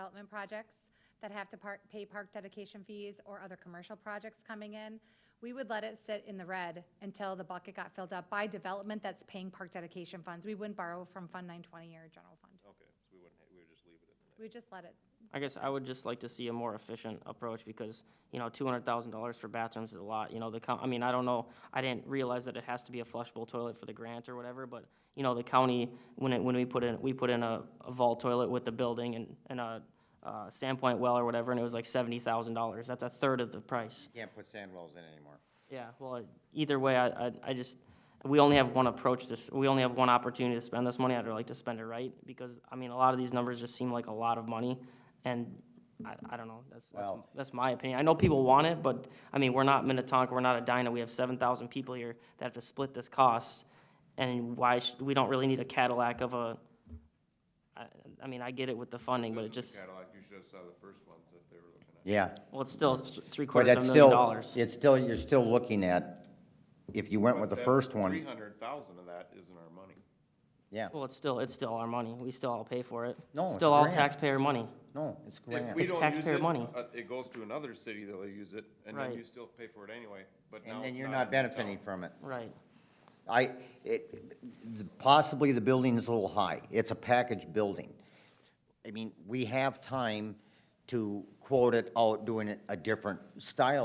development projects that have to park, pay park dedication fees or other commercial projects coming in, we would let it sit in the red until the bucket got filled up by development that's paying park dedication funds. We wouldn't borrow from Fund 920 or general fund. Okay, so we wouldn't, ha- we would just leave it in the We would just let it, I guess I would just like to see a more efficient approach because, you know, two hundred thousand dollars for bathrooms is a lot, you know, the coun- I mean, I don't know, I didn't realize that it has to be a flushable toilet for the grant or whatever, but, you know, the county, when it, when we put in, we put in a, a vault toilet with the building and, and a, uh, Sandpoint well or whatever, and it was like seventy thousand dollars, that's a third of the price. Can't put sand rolls in anymore. Yeah, well, I- either way, I, I, I just, we only have one approach this, we only have one opportunity to spend this money, I'd like to spend it right, because, I mean, a lot of these numbers just seem like a lot of money, and I, I don't know, that's, that's, Well- that's my opinion, I know people want it, but, I mean, we're not Minnetonka, we're not a Edina, we have seven thousand people here that have to split this cost, and why, sh- we don't really need a Cadillac of a, I, I mean, I get it with the funding, but it just, Cadillac, you should have saw the first ones that they were looking at. Yeah. well, it's still th- three But quarters of that's a million still, dollars. it's still, you're still looking at, if you went with the first Three one, hundred thousand of that isn't our money. yeah, Well, it's still, it's still our money. We still all pay for it. No, it's Still all grand. taxpayer money. no, it's If grand. we It's don't use taxpayer it, money. uh, It goes to another city that'll use it, and then Right. you still pay for it anyway, but now And then it's you're not in the town. benefiting from it. Right. I, it, possibly the building is a little high. It's a package building. I mean, we have time to quote it out doing it a different style